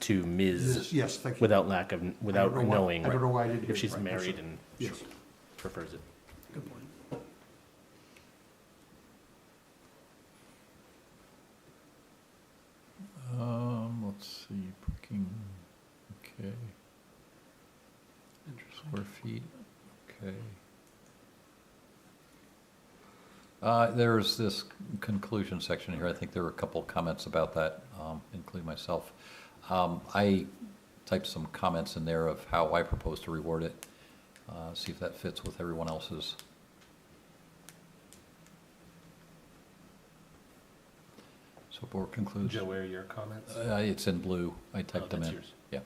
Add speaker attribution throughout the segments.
Speaker 1: to Ms.
Speaker 2: Yes, thank you.
Speaker 1: Without lack of,
Speaker 2: I
Speaker 1: without
Speaker 2: don't know why-
Speaker 1: knowing.
Speaker 2: I don't know why I didn't. hear
Speaker 1: If
Speaker 2: it
Speaker 1: she's
Speaker 2: right. That's
Speaker 1: married
Speaker 2: it.
Speaker 1: and she
Speaker 2: Yes,
Speaker 1: prefers it.
Speaker 2: good point.
Speaker 3: Um, let's see, parking, okay,
Speaker 2: Interesting.
Speaker 3: square feet, okay. Uh, there's this conclusion section here, I think there were a couple of comments about that, um, including myself. Um, I typed some comments in there of how I propose to reward it, uh, see if that fits with everyone else's. So board concludes.
Speaker 1: Joe, where are your comments?
Speaker 3: Uh, It's in blue. I
Speaker 1: Oh,
Speaker 3: typed them
Speaker 1: that's
Speaker 3: in.
Speaker 1: yours.
Speaker 3: Yeah.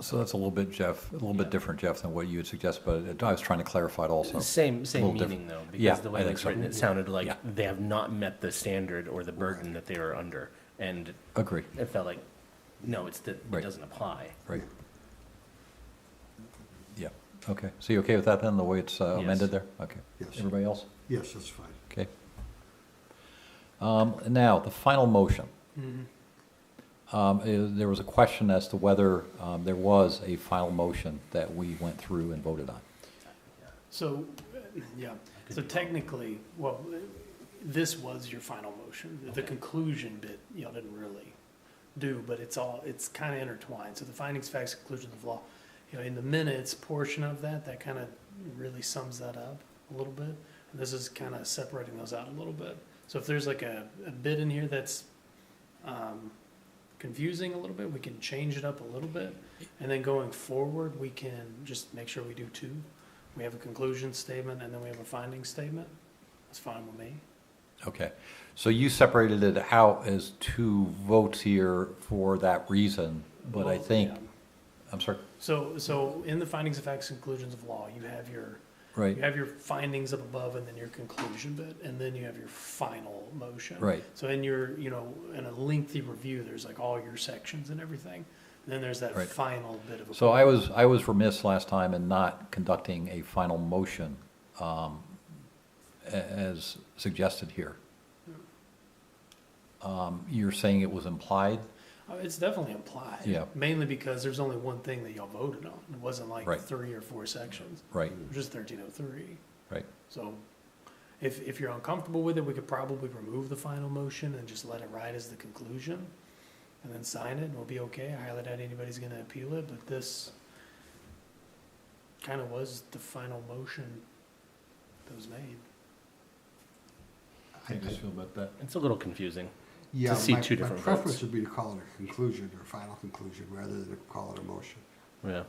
Speaker 3: So that's a little bit, Jeff, a little
Speaker 1: Yeah.
Speaker 3: bit different, Jeff, than what you had suggested, but I was trying to clarify it also.
Speaker 1: Same,
Speaker 3: little
Speaker 1: same
Speaker 3: diff-
Speaker 1: meaning though,
Speaker 3: Yeah,
Speaker 1: because the
Speaker 3: I
Speaker 1: way
Speaker 3: think
Speaker 1: it's
Speaker 3: so.
Speaker 1: written, it sounded like
Speaker 3: Yeah.
Speaker 1: they have not met the standard or the burden that they are under. And
Speaker 3: Agree,
Speaker 1: it felt like, no, it's that it
Speaker 3: Right.
Speaker 1: doesn't apply.
Speaker 3: right. Yeah, okay. So you okay with that then, the way it's uh,
Speaker 1: Yes.
Speaker 3: amended there? Okay.
Speaker 2: Yes,
Speaker 3: Everybody else?
Speaker 2: yes, that's fine.
Speaker 3: Okay. Um, Now, the final motion.
Speaker 2: Mm-hmm.
Speaker 3: Um, i- There was a question as to whether um, there was a final motion that we went through and voted on.
Speaker 4: So, uh, yeah, so technically, well, this was your final motion. The conclusion bit, y'all didn't really do, but it's all, it's kind of intertwined. So the findings, facts, conclusions of law, you know, in the minutes portion of that, that kind of really sums that up a little bit. And This is kind of separating those out a little bit. So if there's like a, a bit in here that's, um, confusing a little bit, we can change it up a little bit. And then going forward, we can just make sure we do two. We have a conclusion statement and then we have a finding statement. That's fine with me.
Speaker 3: Okay, so you separated it out as two votes here for that reason, but I
Speaker 4: Well,
Speaker 3: think,
Speaker 4: yeah.
Speaker 3: I'm sorry,
Speaker 4: So, so in the findings of facts, conclusions of law, you have your,
Speaker 3: right,
Speaker 4: you have your findings up above and then your conclusion bit, and then you have your final motion.
Speaker 3: right,
Speaker 4: So in your, you know, in a lengthy review, there's like all your sections and everything. And then there's that
Speaker 3: Right.
Speaker 4: final bit of a.
Speaker 3: So I was, I was remiss last time in not conducting a final motion um, a- as suggested here.
Speaker 4: Hmm.
Speaker 3: Um, You're saying it was implied?
Speaker 4: Oh, It's definitely implied.
Speaker 3: Yeah.
Speaker 4: Mainly because there's only one thing that y'all voted on. It wasn't
Speaker 3: Right.
Speaker 4: like three or four sections,
Speaker 3: Right,
Speaker 4: It was just thirteen oh three.
Speaker 3: right,
Speaker 4: So if, if you're uncomfortable with it, we could probably remove the final motion and just let it ride as the conclusion and then sign it and we'll be okay. I highly doubt anybody's gonna appeal it, but this kind of was the final motion that was made.
Speaker 2: I- I-
Speaker 3: feel about that?
Speaker 1: It's a little confusing.
Speaker 2: Yeah,
Speaker 1: see
Speaker 2: my-
Speaker 1: two different
Speaker 2: My
Speaker 1: votes.
Speaker 2: preference would be to call it a conclusion or final conclusion rather than to call it a motion.
Speaker 1: Yeah.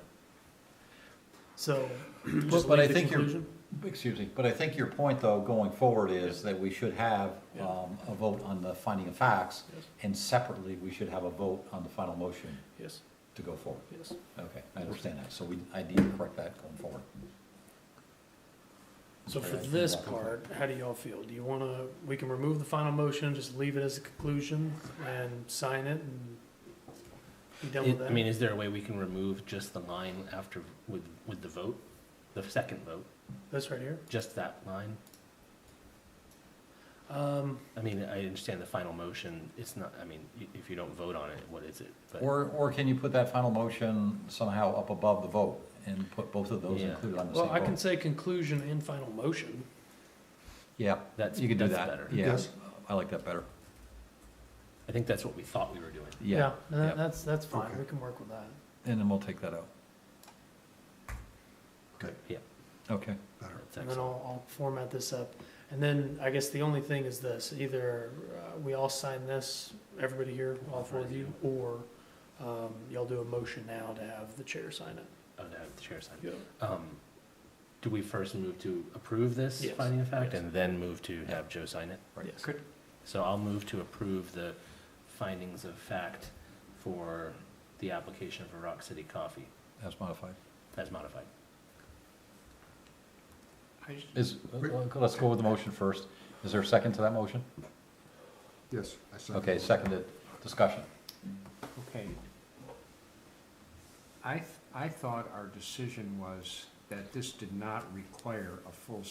Speaker 4: So
Speaker 3: But-
Speaker 4: just
Speaker 3: but I
Speaker 4: leave the
Speaker 3: think you're-
Speaker 4: conclusion?
Speaker 3: Excuse me, but I think your point, though, going forward is that we should have
Speaker 4: Yeah.
Speaker 3: um, a vote on the finding of facts,
Speaker 4: Yes.
Speaker 3: and separately, we should have a vote on the final motion
Speaker 4: Yes,
Speaker 3: to go forward.
Speaker 4: yes.
Speaker 3: Okay, I understand that, so we, I need to correct that going forward.
Speaker 4: So for
Speaker 3: Right.
Speaker 4: this part, how do y'all feel? Do you wanna, we can remove the final motion, just leave it as a conclusion and sign it and be done with that?
Speaker 1: I mean, is there a way we can remove just the line after, with, with the vote? The second vote,
Speaker 4: This right here?
Speaker 1: just that line?
Speaker 4: Um,
Speaker 1: I mean, I understand the final motion, it's not, I mean, i- if you don't vote on it, what is it? But-
Speaker 3: Or, or can you put that final motion somehow up above the vote and put both of those
Speaker 1: Yeah.
Speaker 3: included on the same
Speaker 4: well,
Speaker 3: vote?
Speaker 4: I can say conclusion and final motion.
Speaker 3: Yeah,
Speaker 1: That's-
Speaker 3: you can do
Speaker 1: that's
Speaker 3: that.
Speaker 1: better.
Speaker 3: Yeah,
Speaker 2: Yes.
Speaker 3: I like that better.
Speaker 1: I think that's what we thought we were doing.
Speaker 3: Yeah,
Speaker 4: and that-
Speaker 3: yeah.
Speaker 4: That's, that's fine.
Speaker 2: Okay.
Speaker 4: We can work with that.
Speaker 3: and then we'll take that out.
Speaker 2: Okay,
Speaker 3: Okay,
Speaker 2: better.
Speaker 1: That's
Speaker 4: And then
Speaker 1: excellent.
Speaker 4: I'll, I'll format this up. And then I guess the only thing is this, either uh, we all sign this, everybody here, all four of you, or, um, y'all do a motion now to have the chair sign it.
Speaker 1: Oh, to have the chair sign. Um, Do we first move to approve this
Speaker 4: Yes.
Speaker 1: finding of fact
Speaker 4: Yes.
Speaker 1: and then move to have Joe sign it?
Speaker 3: right.
Speaker 4: Yes.
Speaker 3: Good.
Speaker 1: So I'll move to approve the findings of fact for the application for Rock City Coffee
Speaker 3: As modified.
Speaker 1: as modified.
Speaker 3: Is, let's go with the motion first. Is there a second to that motion?
Speaker 2: Yes, I second.
Speaker 3: Okay, seconded. Discussion.
Speaker 5: Okay. I, th- I thought our decision was that this did not require a full